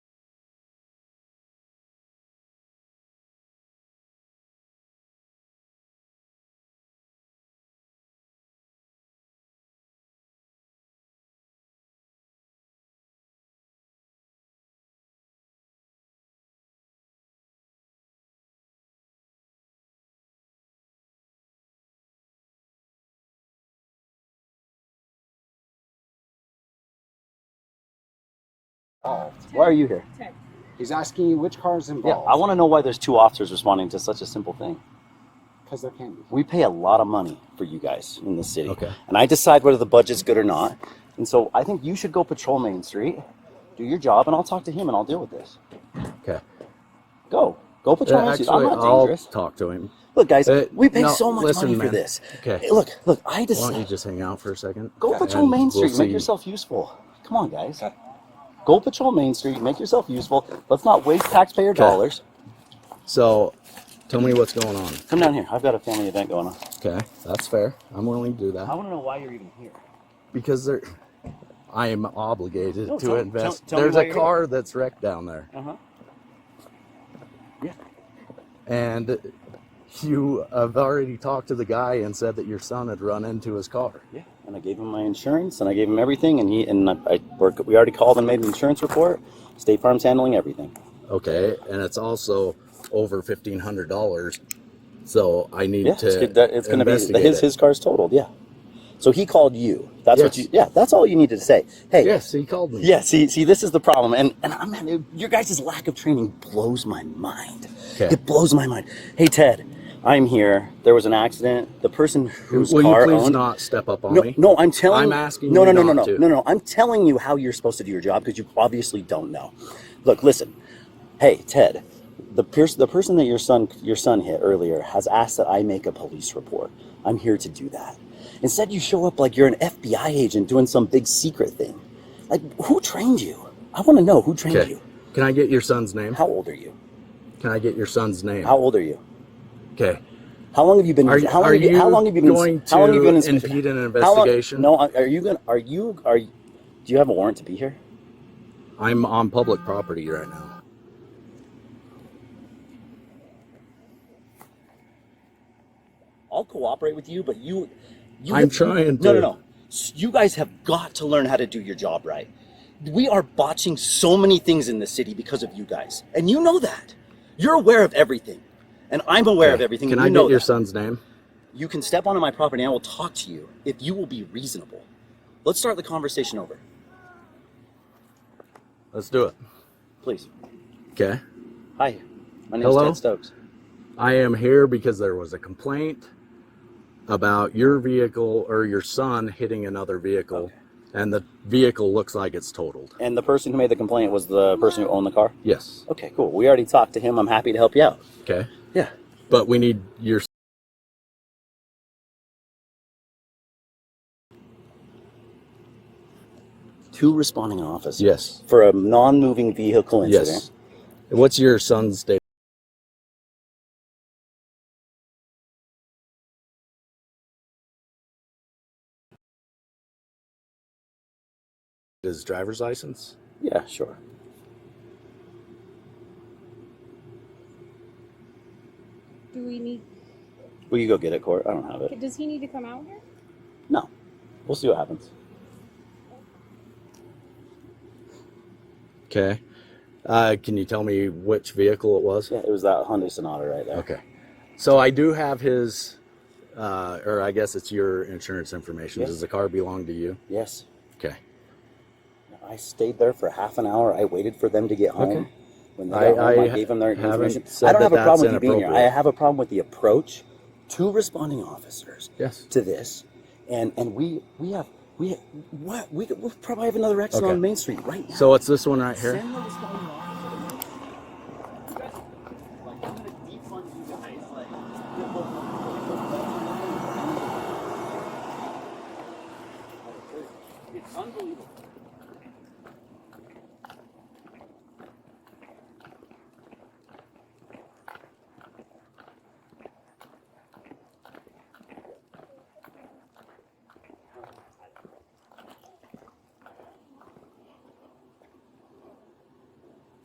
involved? Why are you here? He's asking you which car is Yeah, I involved want to know why there's two officers responding to such a simple thing. because there can't be. We pay a lot of money for you guys in the city. Okay. And I decide whether the budget's good or not. And so I think you should go patrol Main Street, do your job, and I'll talk to him and I'll deal with this. Okay. Go. Go patrol Uh, Main Street. I'm actually, not I'll dangerous. talk to him. Look, guys, Uh, we pay no, so much listen, money man. for this. Okay. Hey, Look, look, I Why don't you decide. just hang out for a second? Go Okay. patrol And Main we'll Street. Make see. yourself useful. Come on, guys. Okay. Go patrol Main Street. Make yourself useful. Let's not waste taxpayer dollars. So, tell me what's going on. Come down here. I've got a family event going on. Okay, that's fair. I'm willing to do that I want to know why you're even here. because there, I am obligated No, to tell- invest. tell- tell me There's why a you're car that's wrecked down there, Uh huh. Yeah. and you have already talked to the guy and said that your son had run into his car. Yeah, and I gave him my insurance, and I gave him everything, and he and I, I work. We already called and made an insurance report. State Farm's handling everything. Okay, and it's also over fifteen hundred dollars. So I need Yeah, to it's, good that, it's going to be investigate his it. his car's totaled. Yeah, so he called you. That's what Yes. you. Yeah, that's all you needed to say. Hey. Yes, he called me. Yeah. See, see, this is the problem, and and I'm man, your guys' lack of training blows my mind. Okay. It blows my mind. Hey Ted, I'm here. There was an accident. The person whose Will car you please owned, not step up on No, me? no, I'm telling. I'm asking No, you no, no, not no, no, to. no, no. I'm telling you how you're supposed to do your job because you obviously don't know. Look, listen. Hey, Ted, the pers- the person that your son your son hit earlier has asked that I make a police report. I'm here to do that. Instead, you show up like you're an FBI agent doing some big secret thing. Like, who trained you? I want to know who trained Okay. you. Can I get your son's name? How old are you? Can I get your son's name? How old are you? Okay. How long have you been? Are- how, long are have you, how long have you been? going how long have you been to in Springfield? impede an How long- investigation? no, are you gonna? Are you? Are you, do you have a warrant to be here? I'm on public property right now. I'll cooperate with you, but you, you I'm trying No, no, to. no. S- You guys have got to learn how to do your job right. We are botching so many things in this city because of you guys, and you know that. You're aware of everything, and I'm aware of Okay. everything. Can and I you know get your that. son's name? You can step onto my property, and I will talk to you if you will be reasonable. Let's start the conversation over, Let's do it. please. Okay. Hi, my name's Hello? Ted Stokes. I am here because there was a complaint about your vehicle or your son hitting another vehicle, Okay. and the vehicle looks like it's totaled. And the person who made the complaint was the person who owned the car. Yes. Okay, cool. We already talked to him. I'm happy to help you out. Okay. Yeah. But we need your. Two responding officers. Yes. for a non-moving vehicle incident. Yes. What's your son's date? His driver's license? Yeah, sure. Do we need, Will you go get it, Court? I don't have it. does he need to come out here? No. We'll see what happens. Okay. Uh, can you tell me which vehicle it was? Yeah, it was that Hyundai Sonata right there. Okay. So I do have his, uh, or I guess it's your insurance information. Yeah. Does the car belong to you? Yes. Okay. I stayed there for half an hour. I waited for them to get home. Okay. When they got I- home, I, I gave them their haven't information. said I don't that have a problem with that's you being here. I inappropriate. have a problem with the approach. Two responding officers Yes. to this, and and we we have we what we we probably have another accident Okay. on Main Street right now. So it's this one right here? Send the responding officer.